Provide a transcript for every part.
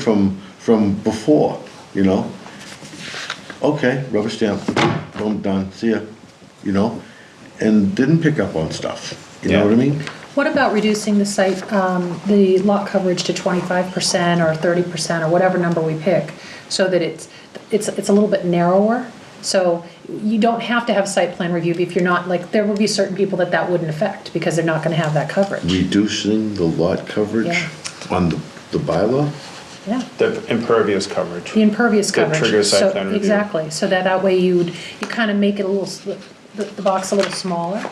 from, from before, you know? Okay, rubber stamp, boom, done, see ya, you know? And didn't pick up on stuff, you know what I Yeah. mean? What about reducing the site, um, the lot coverage to 25% or 30% or whatever number we pick, so that it's, it's, it's a little bit narrower? So you don't have to have site plan review if you're not, like, there will be certain people that that wouldn't affect, because they're not gonna have that coverage. Reducing the lot coverage Yeah. on the, the bylaw? Yeah, The impervious coverage. the impervious That coverage. triggers site So- plan review. Exactly, so that, that way you'd, you kind of make it a little, s- the, the box a little smaller,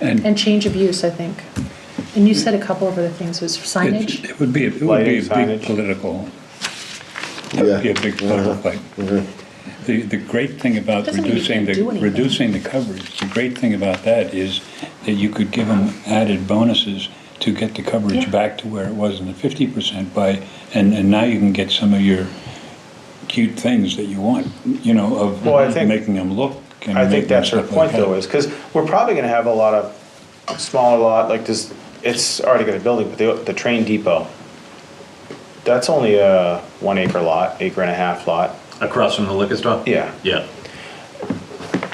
And and change of use, I think. And you said a couple of other things, was it signage? it would be, it would be Lighting, a signage. big political, it would be a big political fight. Mm-hmm. The, the great thing about Doesn't mean you reducing can't the, do anything. reducing the coverage, the great thing about that is that you could give them added bonuses to get the Yeah. coverage back to where it was in the fifty percent by, and, and now you can get some of your cute things that you want, you know, of Well, I think- making them look. and I think making that's her stuff like point though, that. is, because we're probably gonna have a lot of smaller lot, like this, it's already got a building, but the, the train depot. That's only a one acre lot, acre and a half lot, Across from the liquor store? Yeah. Yeah.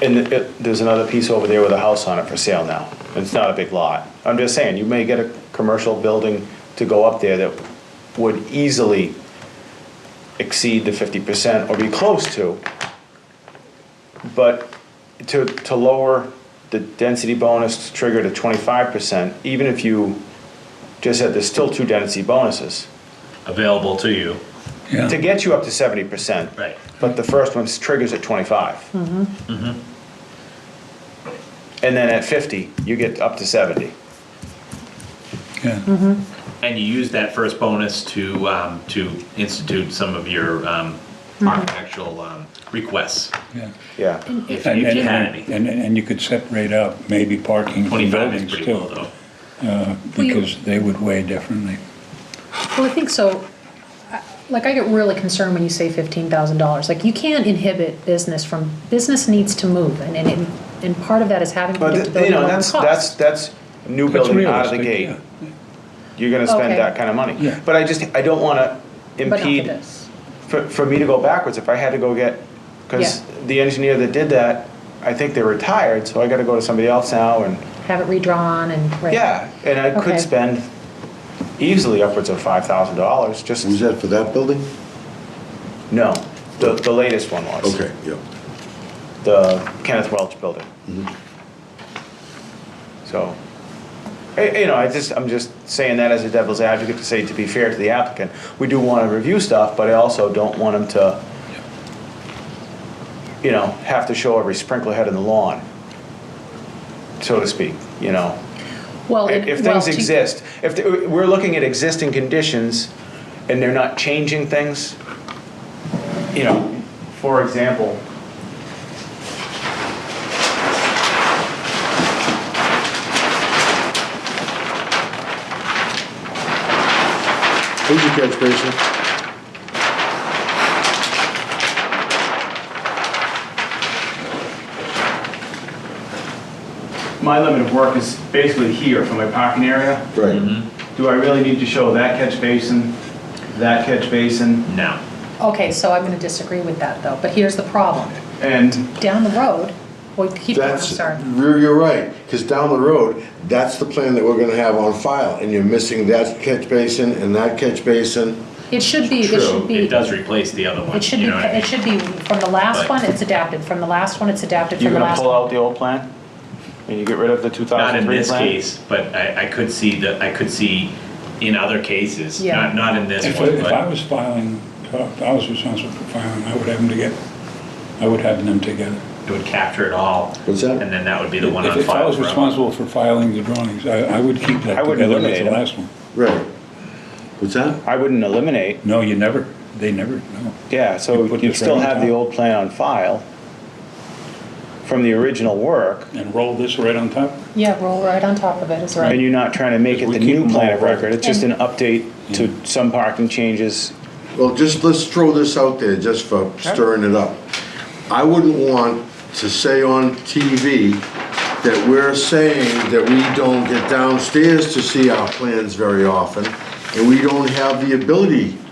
and it- it, there's another piece over there with a house on it for sale now. It's not a big lot. I'm just saying, you may get a commercial building to go up there that would easily exceed the fifty percent or be close to. But to, to lower the density bonus trigger to twenty-five percent, even if you just said there's still two density bonuses, Available to you. to Yeah, get you up to seventy percent. Right. But the first one triggers at twenty-five. Mm-hmm. And then at fifty, you get up to seventy. Mm-hmm. yeah, And you use that first bonus to, um, to institute some of your, um, Mm-hmm. architectural, um, requests. yeah. Yeah, If And- you and- had any. And, and you could separate out maybe parking from Twenty-five is buildings pretty low too, though. you- because they would weigh differently. Well, I think so. I- Like, I get really concerned when you say fifteen thousand dollars. Like, you can't inhibit business from, business needs to move, and, and, it- and part of that is having but predictability you know, on that's, cost. that's, that's new That's building out of the realistic, gate. yeah. You're gonna spend Okay. that kind of money. Yeah. But I just, I don't wanna But not for impede, this. for, for me to go backwards, if I had to go get, cause Yeah. the engineer that did that, I think they're retired, so I gotta go to somebody else now and, Have it redrawn and, right. yeah, and I Okay. could spend easily upwards of five thousand dollars just. Was that for that building? No, the, the latest one was. Okay, yeah. The Kenneth Welch building. So, I- you know, I just, I'm just saying that as a devil's advocate to say, to be fair to the applicant, we do want to review stuff, but I also don't want them to, you know, have to show every sprinkler head in the lawn, so to speak, you know? Well, If and- if well, things to- exist, if, the- we're looking at existing conditions and they're not changing things, you know, for example, Who's your catch basin? my limit of work is basically here from my parking area. Right. Mm-hmm. Do I really need to show that catch basin, that catch basin? No. Okay, so I'm gonna disagree with that, though, but here's the problem. And Down the road, well, keep going, I'm That's, sorry. you're, you're right, because down the road, that's the plan that we're gonna have on file, and you're missing that catch basin and that catch basin. It should be, it True, should be. it does replace the other one. It should you be, know what I it mean? should be, from the last But- one, it's adapted, from the last one, it's adapted, you're from the gonna last pull one. out the old plan? And you get rid of the 2003 plan? Not in this case, but I, I could see that, I could see in other cases, Yeah. not, not in this If, one, if I but was filing, if I was responsible for filing, I would have them together. I would have them together. it would capture it all. What's that? And then that would be the one If on if I file was forever. responsible for filing the drawings, I, I would keep that I wouldn't together with eliminate the them. last one. Right. What's that? I wouldn't eliminate, No, you never, they never, no. yeah, so You put you'd this still right on have the top. old plan on file from the original work. And roll this right on top? Yeah, roll right on top of it, is And right. you're not trying to make it We the keep new them plan all of record, private. it's just an And- update to some parking changes. Well, just, let's throw this out there, just for stirring it up. I wouldn't want to say on TV that we're saying that we don't get downstairs to see our plans very often, and we don't have the ability